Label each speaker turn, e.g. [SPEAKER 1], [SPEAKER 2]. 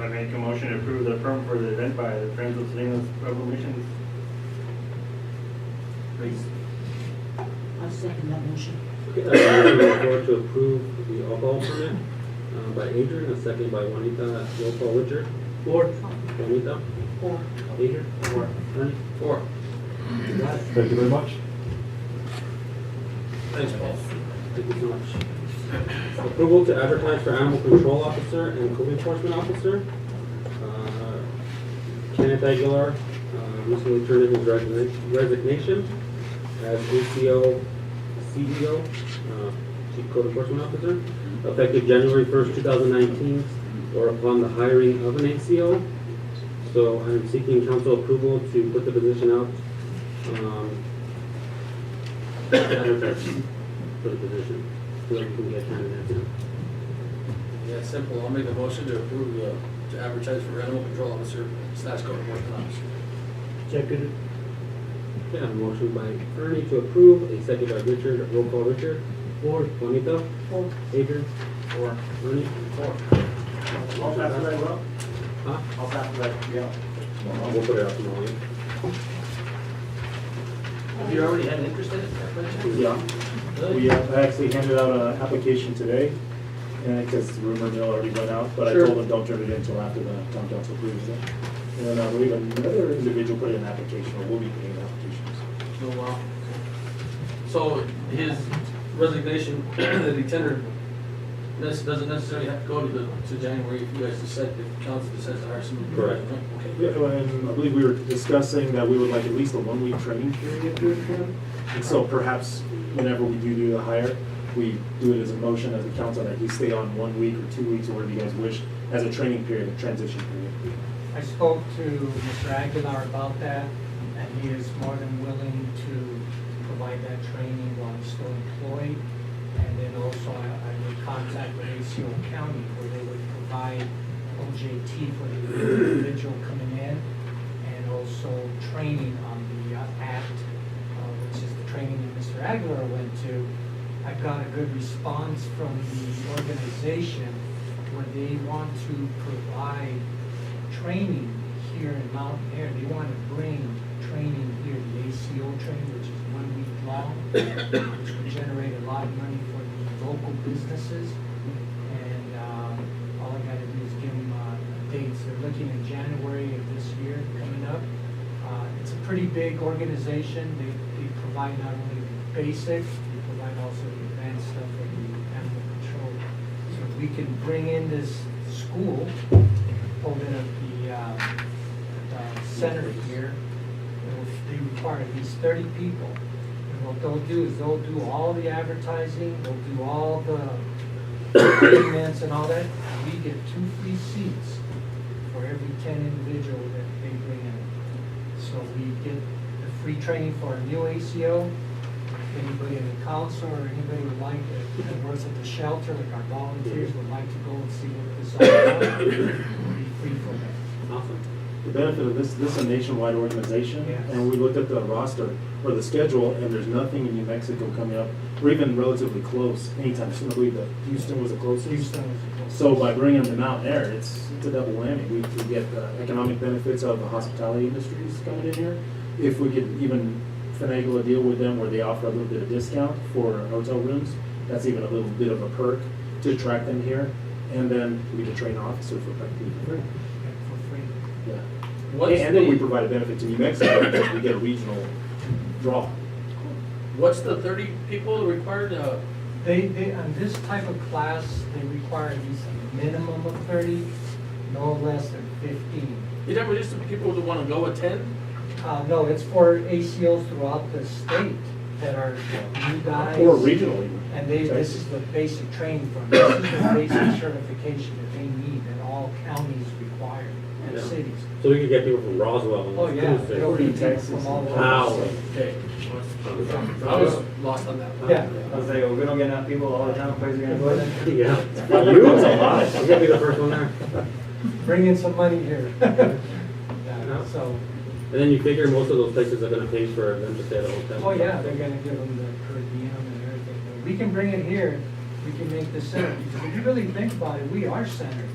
[SPEAKER 1] I make a motion to approve the permit for the event by the Friends of Salinas Revolution. Please.
[SPEAKER 2] I'll second that motion.
[SPEAKER 3] Okay, I have a motion on the floor to approve the alcohol permit uh, by Adrian, a second by Juanita. Roll call, Richard. Four. Juanita.
[SPEAKER 2] Four.
[SPEAKER 3] Adrian. Four. Ernie. Four. You got it.
[SPEAKER 4] Thank you very much.
[SPEAKER 3] Thanks, Paul. Thank you so much. Approval to advertise for animal control officer and code enforcement officer. Uh, Kenneth Aguilar uh, recently turned in his resigna- resignation as ACO CEO, uh, Chief Code Enforcement Officer, effective January 1st, 2019, or upon the hiring of an ACO. So I'm seeking council approval to put the position out um, advertise for the position, so that we can get candidates in.
[SPEAKER 5] Yeah, it's simple. I'll make a motion to approve the, to advertise for animal control officer slash code enforcement officer.
[SPEAKER 1] Second.
[SPEAKER 3] Okay, I have a motion by Ernie to approve, a second by Richard, roll call Richard. Four. Juanita,
[SPEAKER 2] Four.
[SPEAKER 3] Adrian,
[SPEAKER 5] Or,
[SPEAKER 3] Ernie,
[SPEAKER 5] or,
[SPEAKER 1] I'll pass that well.
[SPEAKER 3] huh?
[SPEAKER 1] I'll pass that, yeah.
[SPEAKER 3] We'll put it out tomorrow.
[SPEAKER 5] have you already had an interest in it? by chance?
[SPEAKER 4] Yeah,
[SPEAKER 5] Really?
[SPEAKER 4] we uh, actually handed out an application today, and because the rumor mill already went out, but I
[SPEAKER 5] Sure.
[SPEAKER 4] told them don't turn it in until after the town council approves it. And then I believe another individual put in an application, or will be putting in applications.
[SPEAKER 5] Oh, wow. So his resignation that he tendered, this doesn't necessarily have to go to the, to January if you guys decide, if council decides to hire somebody.
[SPEAKER 3] Correct.
[SPEAKER 5] Okay.
[SPEAKER 4] Yeah, and I believe we were discussing that we would like at least a one-week training period here for them. And so perhaps whenever we do do the hire, we do it as a motion as a council, that we stay on one week or two weeks, or whatever you guys wish, as a training period, a transition period.
[SPEAKER 6] I spoke to Mr. Aguilar about that, and he is more than willing to provide that training while he's still employed. And then also, I I would contact Benicio County, where they would provide OJT for the individual coming in, and also training on the uh, act, uh, which is the training that Mr. Aguilar went to. I got a good response from the organization, where they want to provide training here in Mountain Air, they want to bring training here, the ACO training, which is one week long, which would generate a lot of money for the local businesses. And, uh, all I gotta do is give them, uh, dates, they're looking in January of this year coming up. Uh, it's a pretty big organization, they, they provide not only the basics, they provide also the advanced stuff for the animal control. So if we can bring in this school, open up the, uh, the center here, it'll- they require at least thirty people. And what they'll do is they'll do all the advertising, they'll do all the payments and all that. We get two free seats for every ten individual that they bring in. So we get the free training for a new ACO. Anybody in the council or anybody would like that that works at the shelter, like our volunteers would like to go and see what this is all about. It'll be free for them.
[SPEAKER 3] Awesome.
[SPEAKER 4] the benefit of this, this is a nationwide organization,
[SPEAKER 6] Yes.
[SPEAKER 4] and we looked at the roster or the schedule, and there's nothing in New Mexico coming up, or even relatively close anytime soon. I believe that Houston was the closest.
[SPEAKER 6] Houston was-
[SPEAKER 4] So by bringing them to Mount Air, it's, it's a double whammy. We could get the economic benefits of the hospitality industries coming in here. If we could even finagle a deal with them where they offer a little bit of discount for hotel rooms, that's even a little bit of a perk to attract them here. And then we could train officers for practically free.
[SPEAKER 6] and for free.
[SPEAKER 4] Yeah.
[SPEAKER 5] What's
[SPEAKER 4] And then we
[SPEAKER 5] the-
[SPEAKER 4] provide a benefit to New Mexico because we get a regional draw.
[SPEAKER 5] What's the thirty people required, uh,
[SPEAKER 6] They, they, on this type of class, they require at least a minimum of thirty, no less than fifteen.
[SPEAKER 5] you never used to people that wanna go attend?
[SPEAKER 6] Uh, no, it's for ACOs throughout the state that are new guys.
[SPEAKER 4] Or regionally.
[SPEAKER 6] And they, this is the basic training for them, this is the basic certification that they need, that all counties require, and
[SPEAKER 3] Yeah.
[SPEAKER 6] cities.
[SPEAKER 3] So we could get people from Roswell and.
[SPEAKER 6] Oh, yeah,
[SPEAKER 3] Cruces.
[SPEAKER 6] they'll be people
[SPEAKER 4] Texas
[SPEAKER 6] from all
[SPEAKER 4] and
[SPEAKER 6] over.
[SPEAKER 3] Wow.
[SPEAKER 6] the state.
[SPEAKER 5] Okay, I was lost on that.
[SPEAKER 6] Yeah.
[SPEAKER 1] I was like, "Oh, we don't get enough people all the time, where's it gonna go then?
[SPEAKER 3] Yeah.
[SPEAKER 4] You was a lot.
[SPEAKER 3] You're gonna be the first one there.
[SPEAKER 6] Bring in some money here. Yeah, So,
[SPEAKER 3] And then you figure most of those places are gonna pay for them to stay at a hotel.
[SPEAKER 6] oh yeah, they're gonna give them the per diem and everything. But We can bring it here, we can make this center, because if you really think about it, we are centered.